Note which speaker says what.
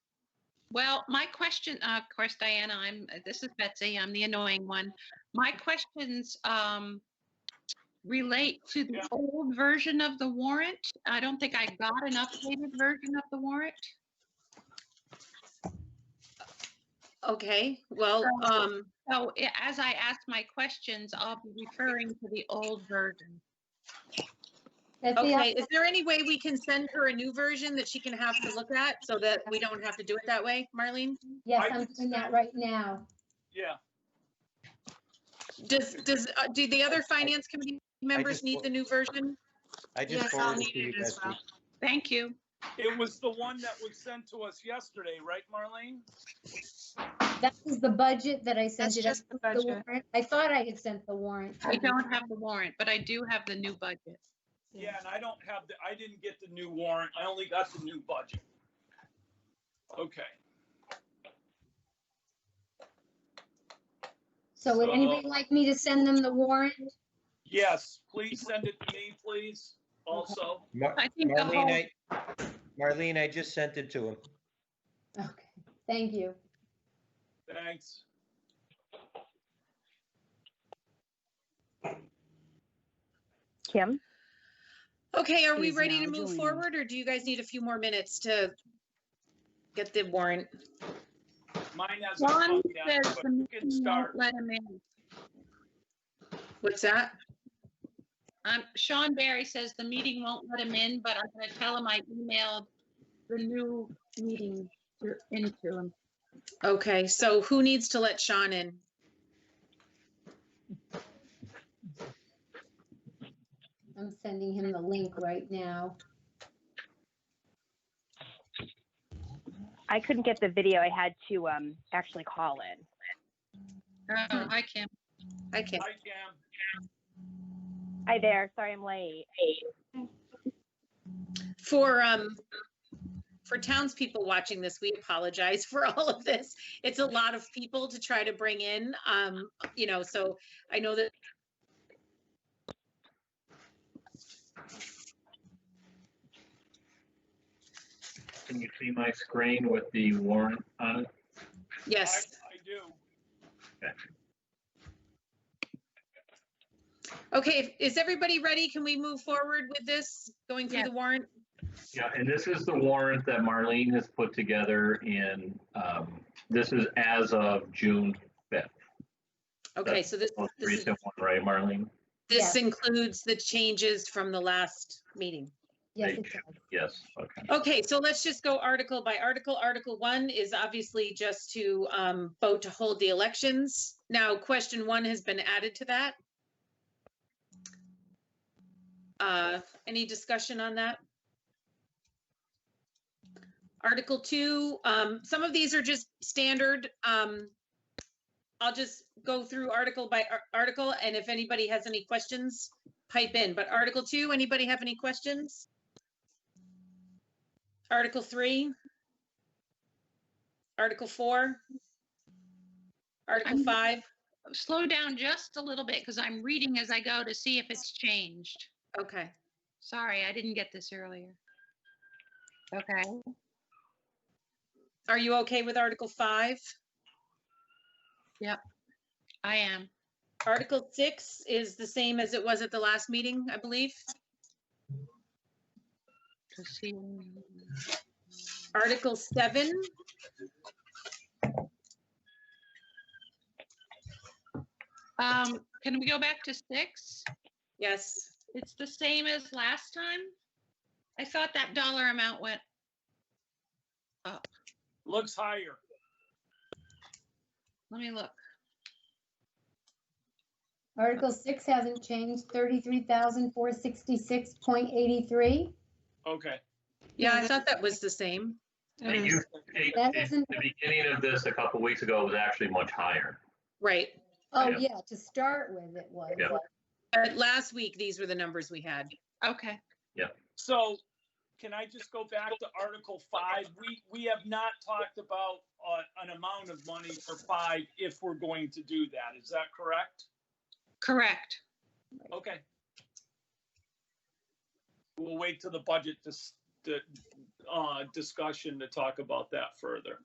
Speaker 1: Well, my question, uh, of course, Diana, I'm, uh, this is Betsy, I'm the annoying one. My questions um, relate to the old version of the warrant. I don't think I got an updated version of the warrant.
Speaker 2: Okay,
Speaker 1: Oh,
Speaker 2: well, um,
Speaker 1: So i- as I ask my questions, I'll be referring to the old version.
Speaker 3: Betsy, I-
Speaker 2: okay, is there any way we can send her a new version that she can have to look at so that we don't have to do it that way, Marlene?
Speaker 3: yes,
Speaker 4: I
Speaker 3: I'm
Speaker 4: can
Speaker 3: doing that
Speaker 4: send-
Speaker 3: right now.
Speaker 4: Yeah,
Speaker 2: Does, does, uh, do the other finance committee members
Speaker 5: just
Speaker 2: need
Speaker 5: want-
Speaker 2: the new version?
Speaker 5: I just
Speaker 6: Yes, I'll
Speaker 5: forwarded it
Speaker 6: need
Speaker 5: to you,
Speaker 6: it as
Speaker 5: Betsy.
Speaker 6: well.
Speaker 1: Thank you.
Speaker 4: it was the one that was sent to us yesterday, right, Marlene?
Speaker 3: That is the budget that I sent
Speaker 6: That's
Speaker 3: you. That's
Speaker 6: just the
Speaker 3: not the
Speaker 6: budget.
Speaker 3: warrant. I thought I had sent the warrant.
Speaker 1: I don't have the warrant, but I do have the new budget.
Speaker 4: Yeah, and I don't have the, I didn't get the new warrant. I only got the new budget. Okay,
Speaker 3: So would anybody
Speaker 4: So-
Speaker 3: like me to send them the warrant?
Speaker 4: yes, please send it to me, please, also.
Speaker 5: Mar-
Speaker 1: I think the whole-
Speaker 5: Marlene, I, Marlene, I just sent it to him.
Speaker 3: Okay, thank you.
Speaker 4: Thanks.
Speaker 7: Kim?
Speaker 2: Okay, are we
Speaker 7: Is
Speaker 2: ready to
Speaker 7: now
Speaker 2: move
Speaker 7: joined.
Speaker 2: forward or do you guys need a few more minutes to get the warrant?
Speaker 4: Mine hasn't
Speaker 1: John
Speaker 4: come yet,
Speaker 1: says
Speaker 4: but
Speaker 1: the
Speaker 4: we can
Speaker 1: meeting
Speaker 4: start.
Speaker 1: won't let him in.
Speaker 2: What's that?
Speaker 1: Um, Sean Barry says the meeting won't let him in, but I'm gonna tell him I emailed the new meeting to- into him.
Speaker 2: Okay, so who needs to let Sean in?
Speaker 3: I'm sending him the link right now.
Speaker 7: I couldn't get the video. I had to um, actually call in.
Speaker 1: Oh, hi, Kim.
Speaker 2: I can't.
Speaker 4: Hi, Cam.
Speaker 7: Hi there. Sorry I'm late.
Speaker 2: For, um, for townspeople watching this, we apologize for all of this. It's a lot of people to try to bring in, um, you know, so I know that
Speaker 8: Can you see my screen with the warrant on it?
Speaker 4: I,
Speaker 2: Yes,
Speaker 4: I do.
Speaker 2: okay, is everybody ready? Can we move forward with this, going through
Speaker 1: Yes.
Speaker 2: the warrant?
Speaker 8: Yeah, and this is the warrant that Marlene has put together in, um, this is as of June,
Speaker 2: Okay, so this,
Speaker 8: most
Speaker 2: this is-
Speaker 8: recent one, right, Marlene?
Speaker 2: this includes the changes from the last meeting.
Speaker 3: Yes,
Speaker 8: Thank
Speaker 3: it
Speaker 8: you.
Speaker 3: does.
Speaker 8: Yes, okay.
Speaker 2: Okay, so let's just go article by article. Article one is obviously just to um, vote to hold the elections. Now, question one has been added to that. Uh, Any discussion on that? Article two, um, some of these are just standard. um, I'll just go through article by ar- article, and if anybody has any questions, pipe in. But article two, anybody have any questions? Article three? Article four? Article
Speaker 1: I'm-
Speaker 2: five?
Speaker 1: Slow down just a little bit because I'm reading as I go to see if it's changed.
Speaker 2: Okay,
Speaker 1: Sorry, I didn't get this earlier. Okay,
Speaker 2: are you okay with article five?
Speaker 1: I am.
Speaker 2: Article six is the same as it was at the last meeting, I believe.
Speaker 1: Let's see.
Speaker 2: Article seven.
Speaker 1: Um, can we go back to six?
Speaker 2: Yes,
Speaker 1: It's the same as last time? I thought that dollar amount went,
Speaker 4: Looks higher.
Speaker 1: let me look.
Speaker 3: Article six hasn't changed, thirty-three thousand, four sixty-six point eighty-three.
Speaker 4: Okay.
Speaker 2: yeah, I thought that was the same.
Speaker 8: And you, it-
Speaker 3: That
Speaker 8: it-
Speaker 3: isn't-
Speaker 8: the beginning of this a couple weeks ago was actually much higher.
Speaker 2: Right,
Speaker 3: Oh,
Speaker 8: Yeah.
Speaker 3: yeah, to start with, it was.
Speaker 8: Yeah.
Speaker 2: but last week, these were the numbers we had.
Speaker 1: Okay,
Speaker 4: So can I just go back to Article five? We, we have not talked about uh, an amount of money for five if we're going to do that. Is that correct?
Speaker 1: correct.
Speaker 4: Okay. We'll wait till the budget dis- the, uh, discussion to talk about that further.